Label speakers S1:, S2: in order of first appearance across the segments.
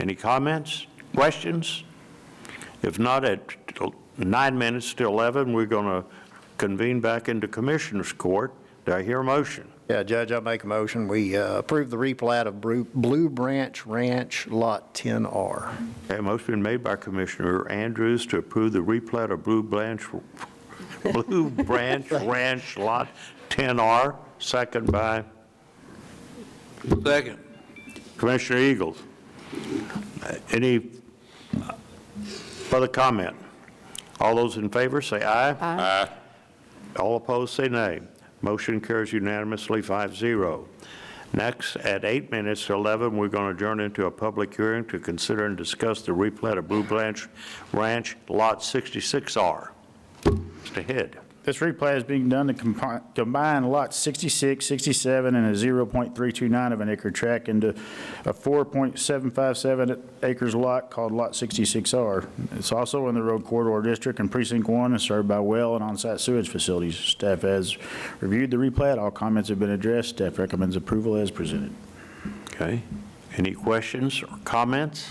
S1: Any comments, questions? If not, at nine minutes to 11, we're going to convene back into Commissioners Court. Do I hear a motion?
S2: Yeah, Judge, I make a motion, we uh, approve the replat of Bru- Blue Branch Ranch Lot 10R.
S1: Okay, motion been made by Commissioner Andrews to approve the replat of Blue Branch, Blue Branch Ranch Lot 10R, second by
S3: Second.
S1: Commissioner Eagles. Any further comment? All those in favor, say aye. Aye. All opposed, say nay. Motion carries unanimously, 5-0. Next, at 8 minutes to 11, we're going to adjourn into a public hearing to consider and discuss the replat of Blue Branch Ranch Lot 66R. Mr. Head.
S4: This replat is being done to compi- combine lots 66, 67, and a 0.329 of an acre tract into a 4.757 acres lot called Lot 66R. It's also in the Road Corridor District and Precinct 1 and served by well and on-site sewage facilities. Staff has reviewed the replat. All comments have been addressed. Staff recommends approval as presented.
S1: Okay. Any questions or comments?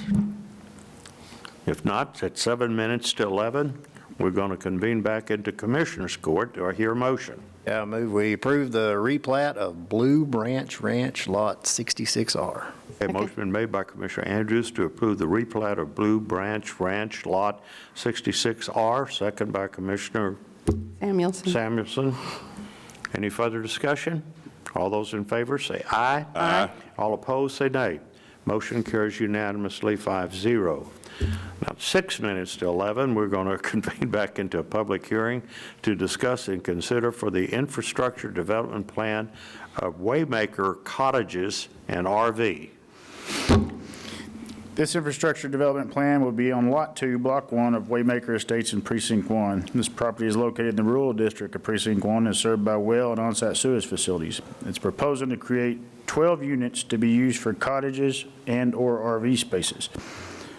S1: If not, at seven minutes to 11, we're going to convene back into Commissioners Court. Do I hear a motion?
S2: Yeah, I move we approve the replat of Blue Branch Ranch Lot 66R.
S1: A motion been made by Commissioner Andrews to approve the replat of Blue Branch Ranch Lot 66R, second by Commissioner
S5: Samuelson.
S1: Samuelson. Any further discussion? All those in favor, say aye. Aye. All opposed, say nay. Motion carries unanimously, 5-0. Now, six minutes to 11, we're going to convene back into a public hearing to discuss and consider for the infrastructure development plan of Waymaker cottages and RV.
S4: This infrastructure development plan will be on Lot 2, Block 1 of Waymaker Estates in Precinct 1. This property is located in the rural district of Precinct 1 and is served by well and on-site sewage facilities. It's proposing to create 12 units to be used for cottages and/or RV spaces.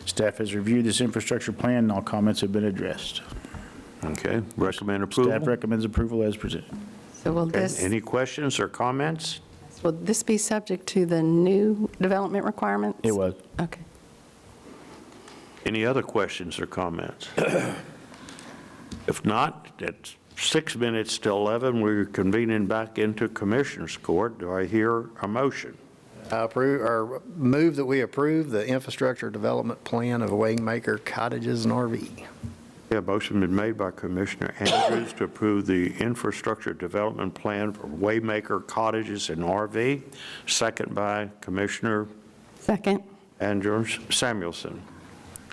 S4: Staff has reviewed this infrastructure plan, and all comments have been addressed.
S1: Okay, recommend
S4: Staff
S1: approval.
S4: recommends approval as presented.
S5: So will
S1: Okay,
S5: this,
S1: Any questions or comments?
S5: will this be subject to the new development requirements?
S4: It was.
S5: Okay.
S1: Any other questions or comments? If not, at six minutes to 11, we're convening back into Commissioners Court. Do I hear a motion?
S2: I approve, or move that we approve the infrastructure development plan of Waymaker Cottages and RV.
S1: Yeah, motion been made by Commissioner Andrews to approve the infrastructure development plan for Waymaker Cottages and RV, second by Commissioner
S5: Second.
S1: Andrews Samuelson.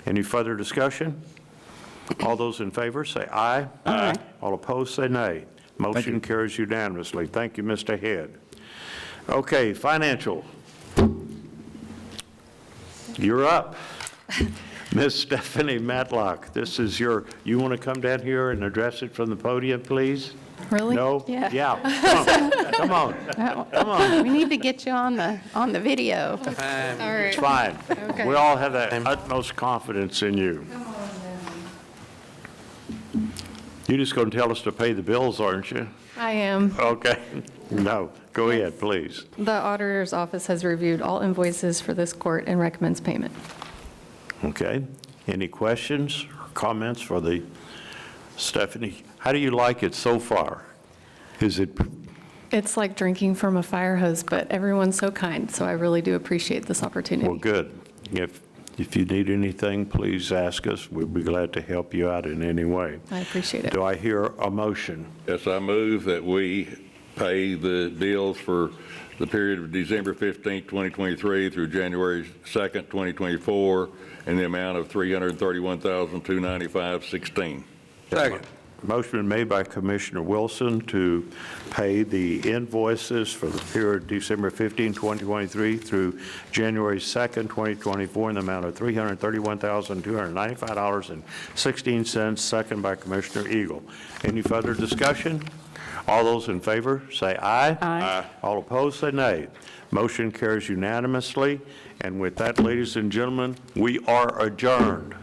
S1: Any further discussion? All those in favor, say aye.
S5: Aye.
S1: All opposed, say nay. Motion carries unanimously. Thank you, Mr. Head. Okay, financial. You're up. Miss Stephanie Matlock, this is your, you want to come down here and address it from the podium, please?
S6: Really?
S1: No?
S5: Yeah.
S1: Yeah. Come on, Come on.
S5: Come on. We need to get you on the, on the video.
S6: All right.
S1: It's fine.
S6: Okay.
S1: We all have the utmost confidence in you. You're just going to tell us to pay the bills, aren't you?
S6: I am.
S1: Okay. No, go ahead, please.
S6: The auditor's office has reviewed all invoices for this court and recommends payment.
S1: Okay. Any questions or comments for the, Stephanie? How do you like it so far? Is it,
S6: It's like drinking from a fire hose, but everyone's so kind, so I really do appreciate this
S1: well,
S6: opportunity.
S1: good. If, if you need anything, please ask us. We'd be glad to help you out in any way.
S6: I appreciate it.
S1: Do I hear a motion?
S3: Yes, I move that we pay the bills for the period of December 15, 2023 through January 2, 2024, in the amount of $331,295.16. Second.
S1: Motion been made by Commissioner Wilson to pay the invoices for the period December 15, 2023 through January 2nd, 2024, in the amount of $331,295.16, second by Commissioner Eagle. Any further discussion? All those in favor, say aye. Aye. All opposed, say nay. Motion carries unanimously, and with that, ladies and gentlemen, we are adjourned.